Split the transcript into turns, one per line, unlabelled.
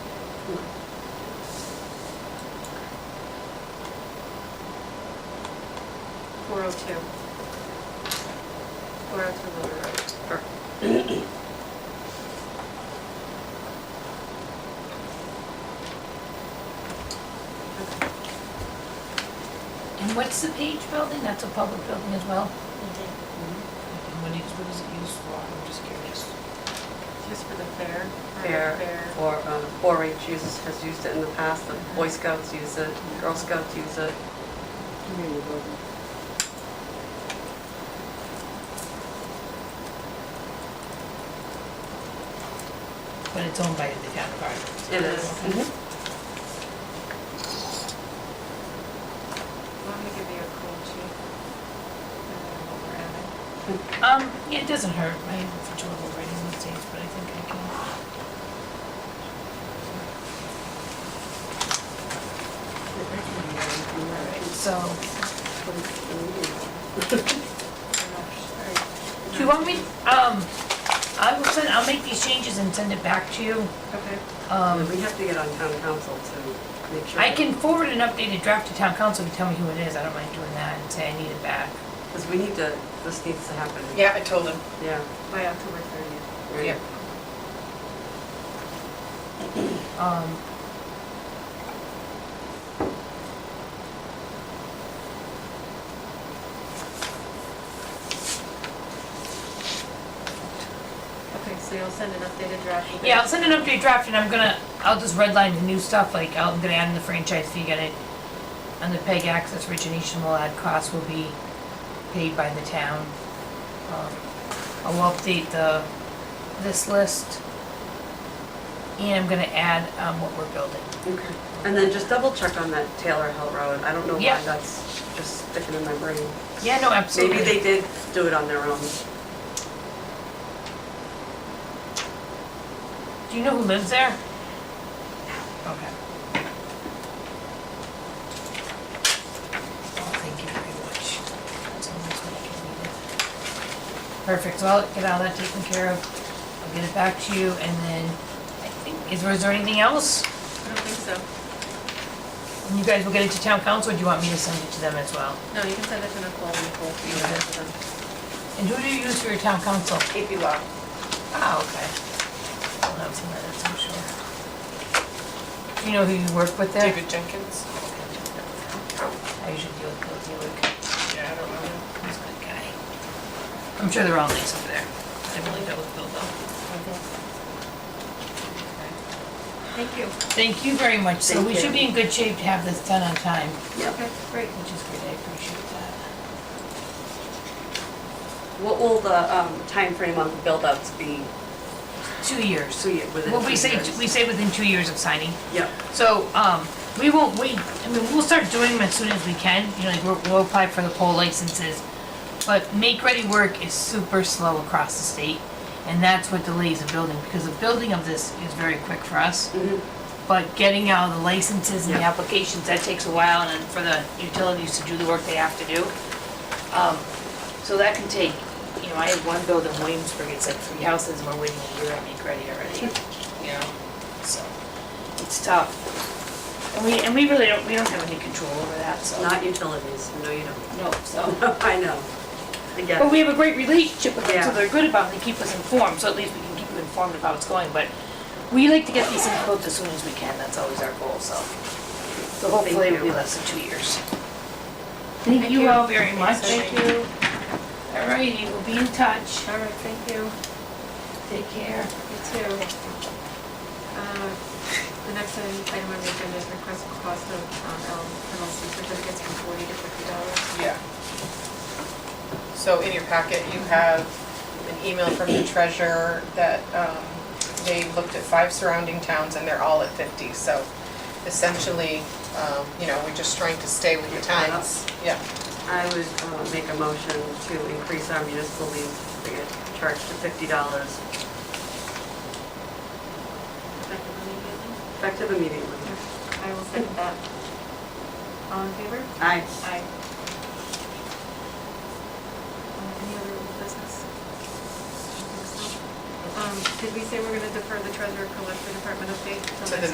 Four oh two. Four oh two Motor Road.
And what's the Page Building? That's a public building as well?
Okay.
And What is, what is it used for? I'm just curious.
Just for the fair. or
fair for, um, 4-H uses, has used it in the past, the Boy Scouts use it, Girl Scouts use it.
But it's owned by the town of Mm-hmm. Gardner.
It is.
Let me give you a cool sheet. And then what we're adding.
Um, yeah, it doesn't hurt, I have trouble writing these days, but I think I can. Alright, so,
And I'll-
do you want me, um, I will send, I'll make these changes and send it back to you.
Okay.
Um,
We have to get on town council to make sure.
I can forward an updated draft to town council if you tell me who it is, I don't mind doing that and say I need it back.
Because we need to, this needs to happen.
Yeah, I told him.
Yeah.
By October thirtieth.
right.
Yeah.
Um,
Okay, so you'll send an updated draft. with
Yeah, I'll
it.
send an update draft and I'm gonna, I'll just redline the new stuff, like I'm gonna add in the franchise fee, get it. And the PEG access origination will add costs will be paid by the town. Um, I will update the, this list. And I'm gonna add, um, what we're building.
Okay. And then just double check on that Taylor Hill Road. I don't know
Yeah.
why that's just sticking in my brain.
Yeah, no,
Maybe
absolutely.
they did do it on their own.
Do you know who lives there? Okay. Oh, thank you very much. That's almost what I can read it. Perfect, so I'll get all that taken care of. I'll get it back to you and then, I think, is there, is there anything else?
I don't think so.
And You guys will get it to town council or do you want me to send it to them as well?
No, you can send it to Nicole, and Nicole, you can send it to them.
And who do you use for your town council?
AP Law.
Ah, okay. I'll have some of that, I'm sure. Do you know who you work with there?
David Jenkins.
I usually deal with Bill Dewick.
Yeah, I don't know.
He's a good guy. I'm sure they're all nice over there. I really dealt with Bill though.
Thank you.
Thank you very much. So
Thank
we should be in good shape to have this done on time,
Okay, great.
which is good. I appreciate that.
What will the um, timeframe on the build-ups be?
Two years.
Two ye- within
Well, we
two
say,
years.
we say within two years of signing.
Yep.
So, um, we won't wait, I mean, we'll start doing them as soon as we can, you know, like, we'll, we'll apply for the pole licenses. But make-ready work is super slow across the state, and that's what delays the building, because the building of this is very quick for us. But getting out the licenses and the
Mm-hmm. Yeah.
applications, that takes a while, and then for the utilities to do the work they have to do. Um, so that can take, you know, I had one build in Williamsburg, it's like three houses, and we're waiting a year on make-ready already, you know, so, it's tough. And we, and we really don't, we don't have any control over that, so.
Not utilities. No, you don't.
No, so.
I know. I get it.
But we have a great relationship with them, so
Yeah.
they're good about it, they keep us informed, so at least we can keep you informed about what's going, but we like to get these things built as soon as we can, that's always our goal, so. So hopefully it'll be
you.
less than two years. Thank you all very much.
Thank you.
All righty, we'll be in touch.
All right, thank you.
Take care.
You too. Uh, The next item item on the agenda is request for cost of um, L- LLC certificates from forty to fifty dollars.
Yeah. So in your packet, you have an email from the treasurer that um, they looked at five surrounding towns and they're all at 50. So essentially, um, you know, we're just trying to stay with the
Get caught up.
times. Yeah.
I would uh, make a motion to increase our municipal leave certificate charge to fifty dollars,
Effective immediately.
effective immediately.
I will second that. All in favor?
Aye.
Aye. Uh, Any other old business? I don't think so. Um, Did we say we're going to defer the treasurer collector department update? till
To the